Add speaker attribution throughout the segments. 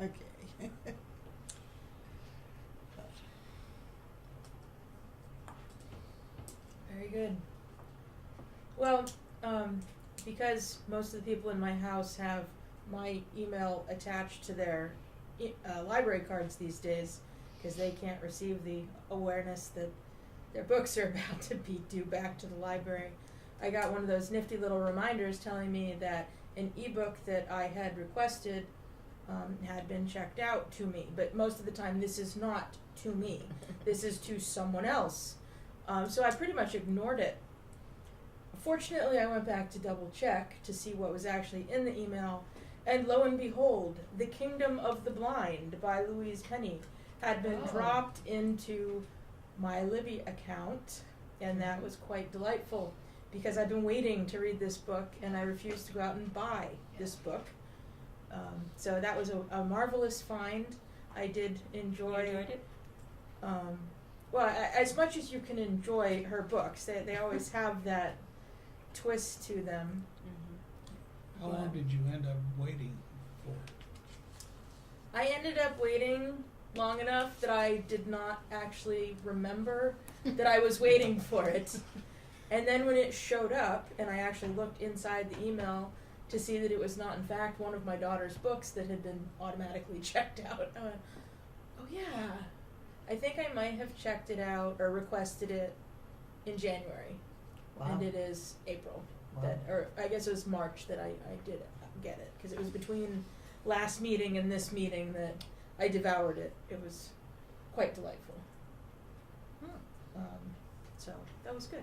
Speaker 1: Okay.
Speaker 2: Very good. Well, um, because most of the people in my house have my email attached to their e- uh, library cards these days, because they can't receive the awareness that their books are about to be due back to the library. I got one of those nifty little reminders telling me that an ebook that I had requested um, had been checked out to me, but most of the time this is not to me. This is to someone else. Um, so I pretty much ignored it. Fortunately, I went back to double check to see what was actually in the email, and lo and behold, The Kingdom of the Blind by Louise Penny had been
Speaker 3: Oh.
Speaker 2: dropped into my Libby account, and that was quite delightful because I've been waiting to read this book and I refused to go out and buy this book. Um, so that was a, a marvelous find. I did enjoy
Speaker 3: You enjoyed it?
Speaker 2: um, well, a- as much as you can enjoy her books, they, they always have that twist to them.
Speaker 3: Mm-hmm.
Speaker 4: How long did you end up waiting for?
Speaker 2: I ended up waiting long enough that I did not actually remember that I was waiting for it. And then when it showed up, and I actually looked inside the email to see that it was not, in fact, one of my daughter's books that had been automatically checked out, I went, oh yeah. I think I might have checked it out or requested it in January. And it is April. That, or I guess it was March that I, I did get it because it was between last meeting and this meeting that I devoured it. It was quite delightful.
Speaker 3: Hmm.
Speaker 2: Um, so that was good.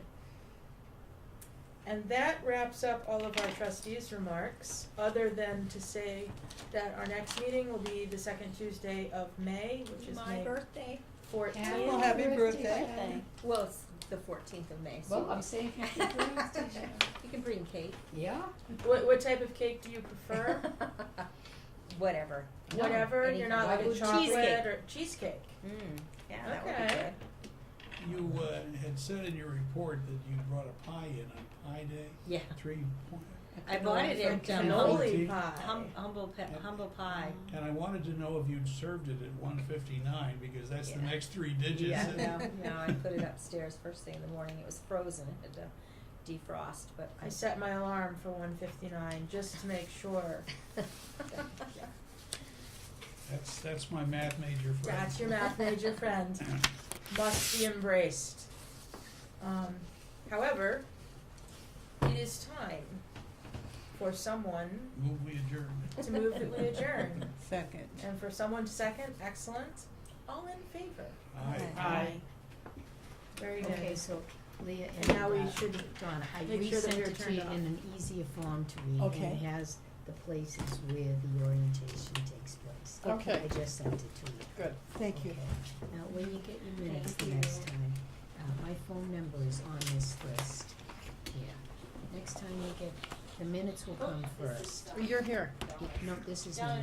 Speaker 2: And that wraps up all of our trustees' remarks, other than to say that our next meeting will be the second Tuesday of May, which is
Speaker 3: My
Speaker 2: May
Speaker 3: birthday.
Speaker 2: 14th.
Speaker 1: Well, happy birthday.
Speaker 3: Well, it's the fourteenth of May, so.
Speaker 5: Well, I'm saying happy birthday. Sharon.
Speaker 3: You can bring cake.
Speaker 5: Yeah?
Speaker 2: What, what type of cake do you prefer?
Speaker 3: Whatever.
Speaker 5: No,
Speaker 2: Whatever, you're
Speaker 3: anything.
Speaker 2: not
Speaker 5: Why
Speaker 2: like a
Speaker 5: would-
Speaker 2: chocolate
Speaker 3: Cheesecake.
Speaker 2: or cheesecake.
Speaker 3: Mm, yeah, that would be
Speaker 2: Okay.
Speaker 3: good.
Speaker 4: You uh, had said in your report that you brought a pie in on Pie Day.
Speaker 3: Yeah.
Speaker 4: Three point,
Speaker 3: I bought it
Speaker 5: um,
Speaker 3: in
Speaker 2: From
Speaker 3: cannoli.
Speaker 2: cannoli
Speaker 4: Cannoli.
Speaker 2: pie.
Speaker 3: Hum, humble, pe-
Speaker 4: Yeah.
Speaker 3: humble pie.
Speaker 4: and I wanted to know if you'd served it at one fifty-nine, because that's the
Speaker 3: Yeah.
Speaker 4: next three digits.
Speaker 3: Yeah,
Speaker 4: that-
Speaker 3: no, no, I put it upstairs first thing in the morning. It was frozen. It had to defrost, but I.
Speaker 2: I set my alarm for 1:59 just to make sure.
Speaker 4: That's, that's my math major friend.
Speaker 2: That's your math major friend. Must be embraced. Um, however, it is time for someone
Speaker 4: Move we adjourn.
Speaker 2: to move that we adjourn,
Speaker 1: Second.
Speaker 2: and for someone to second. Excellent. All in favor.
Speaker 4: Aye.
Speaker 2: Aye. Very good.
Speaker 5: Okay, so Leah and
Speaker 2: And now we
Speaker 5: uh,
Speaker 2: should
Speaker 5: Donna, I
Speaker 2: make sure that
Speaker 5: resent
Speaker 2: they're
Speaker 5: it to
Speaker 2: turned
Speaker 5: you in
Speaker 2: off.
Speaker 5: an easier form to read, and
Speaker 1: Okay.
Speaker 5: it has the places where the orientation takes place.
Speaker 1: Okay.
Speaker 5: I just sent it to you.
Speaker 1: Good. Thank you.
Speaker 5: Okay. Now, when you get your minutes the
Speaker 3: Thank
Speaker 5: next
Speaker 3: you.
Speaker 5: time, uh, my phone number is on this list here. Next time you get, the minutes will come first.
Speaker 6: Oh,
Speaker 1: You're here.
Speaker 5: It- No, this is mine,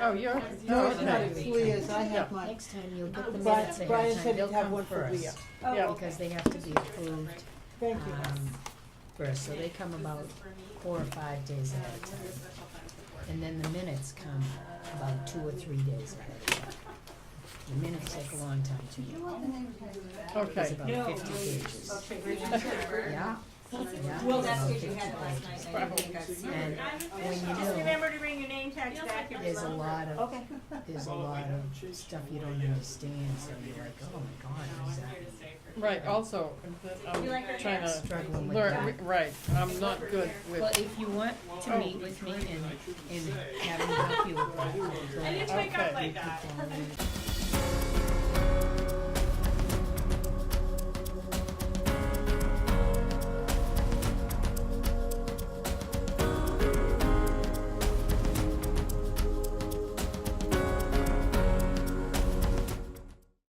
Speaker 5: yeah.
Speaker 1: Oh, you're. No, it's not. Leah's, I have mine.
Speaker 5: Next time you'll get the
Speaker 1: Brian-
Speaker 5: minutes ahead
Speaker 1: Brian
Speaker 5: of time,
Speaker 1: said
Speaker 5: they'll
Speaker 1: he'd have
Speaker 5: come
Speaker 1: one for Leah.
Speaker 5: first,
Speaker 6: Oh,
Speaker 1: Yeah,
Speaker 5: because they have to be approved,
Speaker 1: thank you.
Speaker 5: um, first, so they come about four or five days ahead of time. And then the minutes come about two or three days ahead of time. The minutes take a long time to make, it's
Speaker 1: Okay.
Speaker 5: about fifty pages. Yeah, yeah.
Speaker 3: Well,
Speaker 5: it's
Speaker 3: that's
Speaker 5: about
Speaker 3: what you
Speaker 5: 50
Speaker 3: had last
Speaker 5: pages.
Speaker 3: night. I didn't think I'd seen
Speaker 5: And
Speaker 3: it.
Speaker 5: when you
Speaker 7: Just
Speaker 5: do,
Speaker 7: remember to bring your name tags back. if
Speaker 5: there's a
Speaker 7: it's
Speaker 5: lot of,
Speaker 1: Okay.
Speaker 5: there's a lot of stuff you don't understand, so you're like, oh my god, uh, is that?
Speaker 6: Right, also, I'm
Speaker 7: You like her
Speaker 6: trying
Speaker 3: Uh,
Speaker 7: dress?
Speaker 6: to
Speaker 5: Struggling with that.
Speaker 6: learn, right, I'm not good
Speaker 5: Well,
Speaker 6: with,
Speaker 5: if you want to
Speaker 6: Oh.
Speaker 5: meet with me and, and have me help you with that,
Speaker 7: I
Speaker 5: then
Speaker 7: didn't wake
Speaker 6: Okay.
Speaker 7: up
Speaker 5: we
Speaker 7: like
Speaker 5: could
Speaker 7: that.
Speaker 5: then